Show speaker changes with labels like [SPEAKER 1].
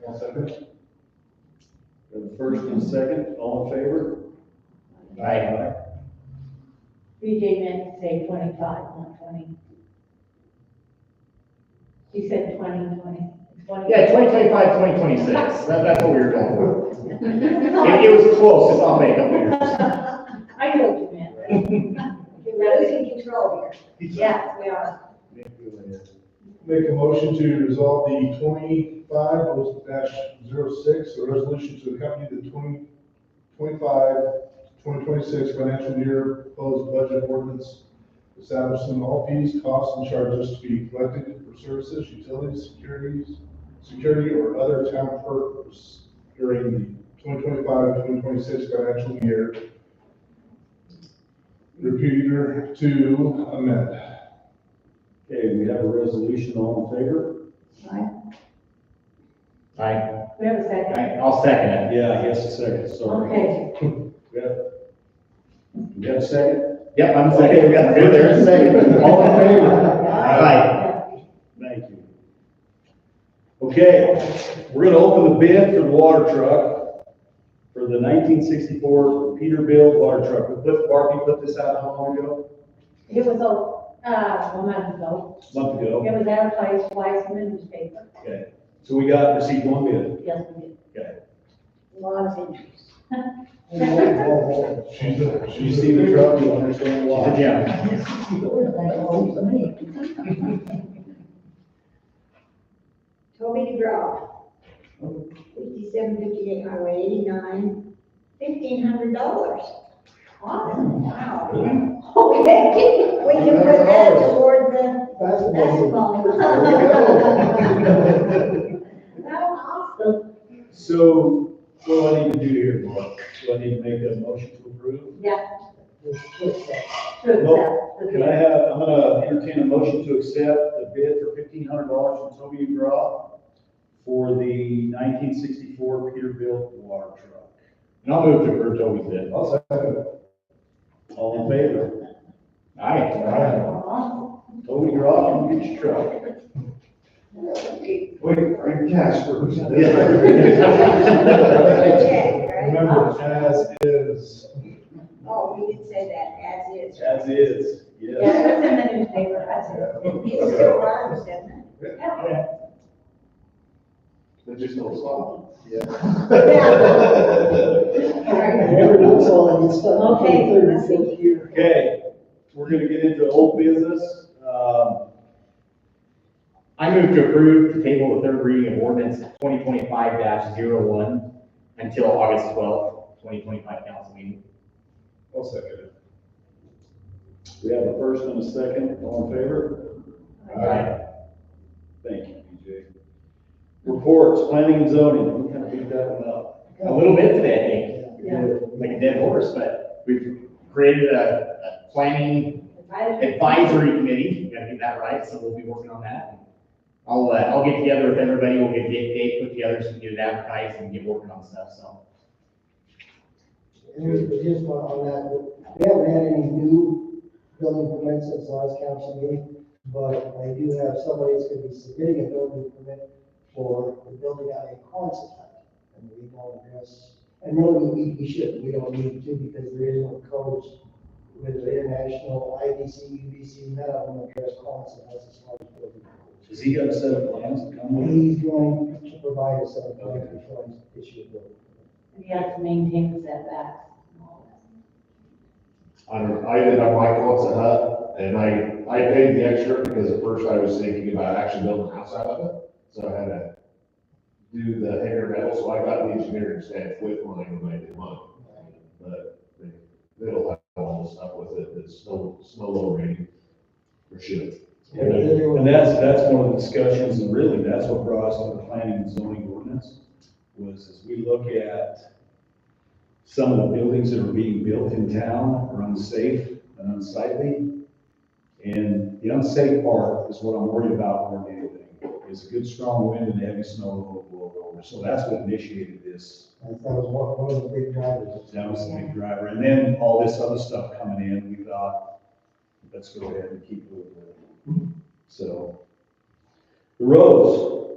[SPEAKER 1] One second. We have a first and a second, all in favor? Aye.
[SPEAKER 2] BJ meant to say twenty-five, not twenty. She said twenty, twenty, twenty.
[SPEAKER 3] Yeah, 2025, 2026, that, that's what we were going for. It, it was close, it's all made up years.
[SPEAKER 2] I know what you meant.
[SPEAKER 4] We're losing control here. Yes, we are.
[SPEAKER 5] Make a motion to resolve the twenty-five dash zero six, a resolution to accompany the 20 25 2026 financial year proposed budget ordinance, establishing all fees, costs, and charges to be collected for services, utilities, securities, security, or other town purpose during the 2025-2026 financial year. Repeater to amend.
[SPEAKER 1] Okay, we have a resolution, all in favor?
[SPEAKER 3] I,
[SPEAKER 2] We have a second.
[SPEAKER 3] I, I'll second it.
[SPEAKER 1] Yeah, yes, a second, sorry.
[SPEAKER 2] Okay,
[SPEAKER 1] We have, we have a second?
[SPEAKER 3] Yep, I'm second, we got, good, there's a second. All in favor? Aye.
[SPEAKER 1] Thank you. Okay, we're gonna open the bid for the water truck for the nineteen sixty-four Peterbilt water truck. Cliff Barkey put this out how long ago?
[SPEAKER 2] it was a, uh, a month ago.
[SPEAKER 1] A Month
[SPEAKER 2] It
[SPEAKER 1] ago.
[SPEAKER 2] was advertised twice in the newspaper.
[SPEAKER 1] Okay, so we got, received one bid.
[SPEAKER 2] Yes, we did.
[SPEAKER 1] Okay.
[SPEAKER 2] A lot of interest.
[SPEAKER 5] She's a,
[SPEAKER 1] You see the truck, you understand
[SPEAKER 3] She's a
[SPEAKER 1] why.
[SPEAKER 3] gem.
[SPEAKER 4] Toby DeGraw. Fifty-seven fifty-eight Highway eighty-nine, fifteen hundred dollars. Wow. Okay, we can put that toward the basketball. That was awesome.
[SPEAKER 1] So what do I need to do here, Mark? Do I need to make a motion to approve?
[SPEAKER 2] Yeah. True,
[SPEAKER 1] Well,
[SPEAKER 2] that's the
[SPEAKER 1] Can I
[SPEAKER 2] bid.
[SPEAKER 1] have, I'm gonna entertain a motion to accept the bid for fifteen hundred dollars from Toby and Graw for the nineteen sixty-four Peterbilt water truck.
[SPEAKER 3] And I'll move to approve Toby's bid.
[SPEAKER 1] All in favor?
[SPEAKER 3] Aye.
[SPEAKER 2] Aw,
[SPEAKER 1] Toby Graw, come get your truck.
[SPEAKER 6] Wait, bring cash first.
[SPEAKER 4] Okay, right?
[SPEAKER 5] Remember, as is.
[SPEAKER 4] Oh, we did say that, as is.
[SPEAKER 1] As is, yes.
[SPEAKER 2] Yeah, it was in the newspaper, I said.
[SPEAKER 4] It's still runs, doesn't it?
[SPEAKER 6] There's just no stop.
[SPEAKER 7] Everyone's all in this stuff.
[SPEAKER 4] Okay,
[SPEAKER 7] Third,
[SPEAKER 4] let's see.
[SPEAKER 7] fourth year.
[SPEAKER 1] Okay, we're gonna get into old business. Um,
[SPEAKER 3] I move to approve to table the third reading of ordinance twenty twenty-five one until August twelfth, twenty twenty-five council meeting.
[SPEAKER 5] I'll second
[SPEAKER 1] we have a first and a second, all in favor?
[SPEAKER 3] Aye.
[SPEAKER 1] Thank you, BJ. Reports, planning and zoning, we kind of beat that one up.
[SPEAKER 3] A little bit today, I
[SPEAKER 2] Yeah.
[SPEAKER 3] think, like a dead horse, but we've created a, a planning
[SPEAKER 2] I-
[SPEAKER 3] advisory committee, we gotta get that right, so we'll be working on that. I'll, uh, I'll get together with everybody, we'll get a date put together, so we can get it advertised and get working on stuff, so.
[SPEAKER 7] And we just want on that, we haven't had any new building permits since the last council meeting, but I do have somebody that's gonna be submitting a building permit for the building out in Quonset. And we don't address, and really, we, we should, we don't need to, because there is no codes with the international IBC, UBC, none of them address Quonset as a small building.
[SPEAKER 1] Has he got a set of plans to come with?
[SPEAKER 7] He's going to provide us a plan before we issue a building.
[SPEAKER 2] You have to maintain the setbacks and all that.
[SPEAKER 6] I don't, I ended up like once a hut, and I, I paid the extra because at first I was thinking about actually building a house out of it. So I had to do the hanger metal, so I got the engineering staff with mine when I did mine. But they, they'll have all this stuff with it, it's no, it's no lowering, for sure.
[SPEAKER 1] And that's, that's one of the discussions, and really, that's what brought us to the planning and zoning ordinance, was as we look at some of the buildings that are being built in town are unsafe and unsightly. And the unsafe part is what I'm worried about more than anything, is a good strong wind and heavy snow will blow over. So that's what initiated this
[SPEAKER 7] That was one, one of the big drivers.
[SPEAKER 1] That was the big driver. And then all this other stuff coming in, we thought, let's go ahead and keep moving. So. The roads,